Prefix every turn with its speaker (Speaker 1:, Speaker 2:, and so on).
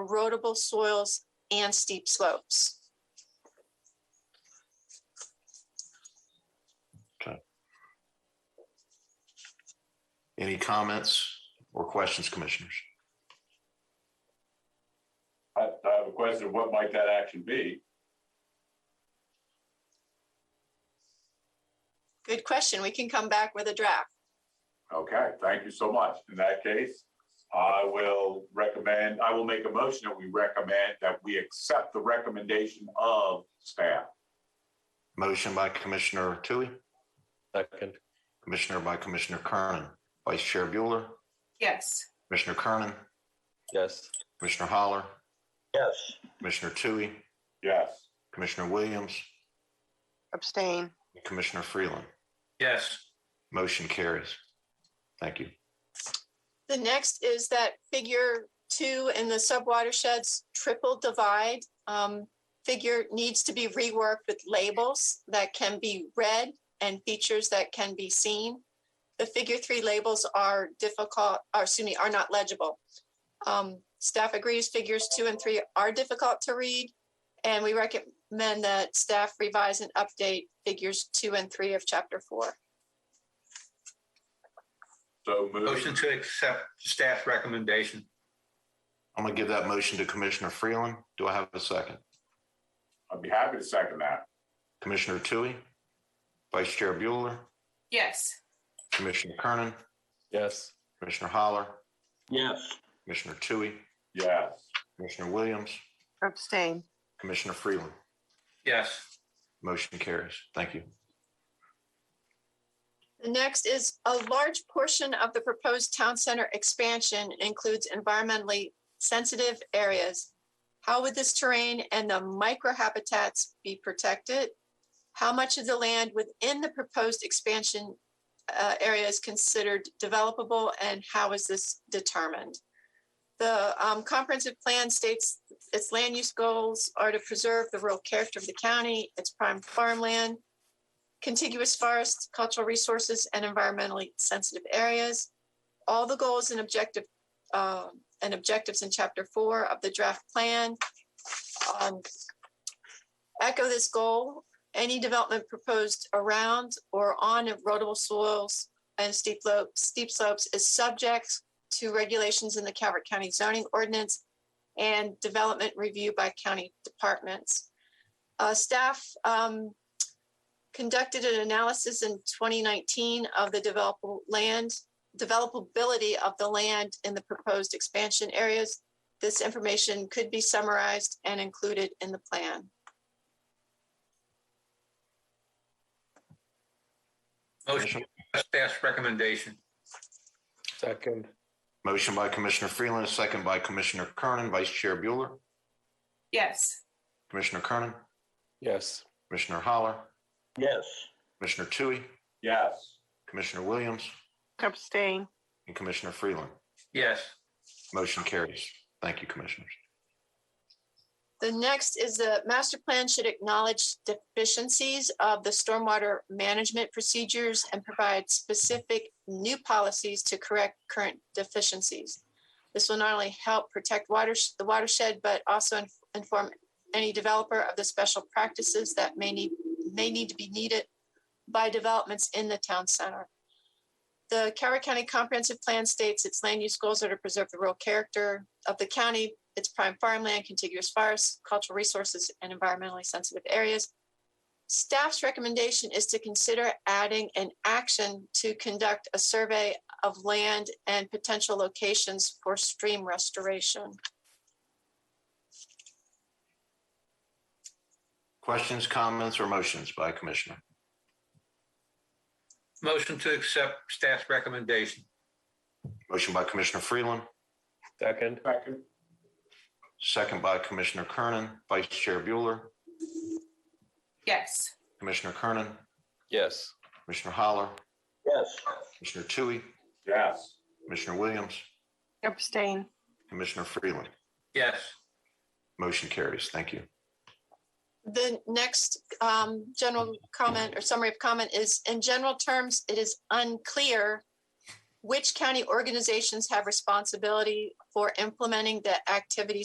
Speaker 1: erodible soils, and steep slopes.
Speaker 2: Any comments or questions, commissioners?
Speaker 3: I, I have a question, what might that action be?
Speaker 1: Good question. We can come back with a draft.
Speaker 3: Okay, thank you so much. In that case, I will recommend, I will make a motion that we recommend that we accept the recommendation of staff.
Speaker 2: Motion by Commissioner Tui,
Speaker 4: Second,
Speaker 2: Commissioner by Commissioner Kernan, Vice Chair Bueller,
Speaker 5: yes,
Speaker 2: Commissioner Kernan,
Speaker 4: yes.
Speaker 2: Commissioner Holler,
Speaker 4: Yes.
Speaker 2: Commissioner Tui,
Speaker 3: Yes,
Speaker 2: Commissioner Williams,
Speaker 6: abstain,
Speaker 2: and Commissioner Freeland.
Speaker 7: yes,
Speaker 2: Motion carries. Thank you.
Speaker 1: The next is that figure two in the subwatersheds triple divide. um, Figure needs to be reworked with labels that can be read and features that can be seen. The figure three labels are difficult, or excuse me, are not legible. Um, Staff agrees figures two and three are difficult to read. And we recommend that staff revise and update figures two and three of chapter four.
Speaker 3: so moved.
Speaker 7: motion to accept staff recommendation.
Speaker 2: I'm going to give that motion to Commissioner Freeland. Do I have a second?
Speaker 3: I'd be happy to second that.
Speaker 2: Commissioner Tui, Vice Chair Bueller,
Speaker 5: yes,
Speaker 2: Commissioner Kernan,
Speaker 4: Yes,
Speaker 2: Commissioner Holler,
Speaker 8: yes,
Speaker 2: Commissioner Tui,
Speaker 3: Yes,
Speaker 2: Commissioner Williams,
Speaker 6: abstain,
Speaker 2: Commissioner Freeland.
Speaker 7: Yes,
Speaker 2: Motion carries. Thank you.
Speaker 1: The next is a large portion of the proposed town center expansion includes environmentally sensitive areas. How would this terrain and the microhabitats be protected? How much of the land within the proposed expansion uh, area is considered developable and how is this determined? The um, comprehensive plan states its land use goals are to preserve the rural character of the county, its prime farmland, contiguous forests, cultural resources, and environmentally sensitive areas. All the goals and objective, um, and objectives in chapter four of the draft plan. um, Echo this goal, any development proposed around or on erodible soils and steep lo- steep slopes is subject to regulations in the Calvert County zoning ordinance and development review by county departments. Uh, staff, um, conducted an analysis in 2019 of the developable land, developability of the land in the proposed expansion areas. This information could be summarized and included in the plan.
Speaker 7: motion to accept staff's recommendation.
Speaker 4: second,
Speaker 2: Motion by Commissioner Freeland, a second by Commissioner Kernan, Vice Chair Bueller,
Speaker 5: yes,
Speaker 2: Commissioner Kernan,
Speaker 4: yes.
Speaker 2: Commissioner Holler,
Speaker 8: yes,
Speaker 2: Commissioner Tui,
Speaker 3: yes,
Speaker 2: Commissioner Williams,
Speaker 6: abstain,
Speaker 2: and Commissioner Freeland.
Speaker 7: Yes,
Speaker 2: Motion carries. Thank you, Commissioners.
Speaker 1: The next is the master plan should acknowledge deficiencies of the stormwater management procedures and provide specific new policies to correct current deficiencies. This will not only help protect water, the watershed, but also in- inform any developer of the special practices that may need, may need to be needed by developments in the town center. The Carroll County Comprehensive Plan states its land use goals are to preserve the rural character of the county, its prime farmland, contiguous forests, cultural resources, and environmentally sensitive areas. Staff's recommendation is to consider adding an action to conduct a survey of land and potential locations for stream restoration.
Speaker 2: Questions, comments, or motions by Commissioner?
Speaker 7: motion to accept staff's recommendation.
Speaker 2: Motion by Commissioner Freeland,
Speaker 4: Second,
Speaker 3: second,
Speaker 2: second by Commissioner Kernan, Vice Chair Bueller,
Speaker 5: yes,
Speaker 2: Commissioner Kernan,
Speaker 4: yes.
Speaker 2: Commissioner Holler,
Speaker 8: yes,
Speaker 2: Commissioner Tui,
Speaker 3: yes,
Speaker 2: Commissioner Williams,
Speaker 6: abstain,
Speaker 2: Commissioner Freeland.
Speaker 7: Yes,
Speaker 2: Motion carries. Thank you.
Speaker 1: The next um, general comment or summary of comment is, in general terms, it is unclear which county organizations have responsibility for implementing the activities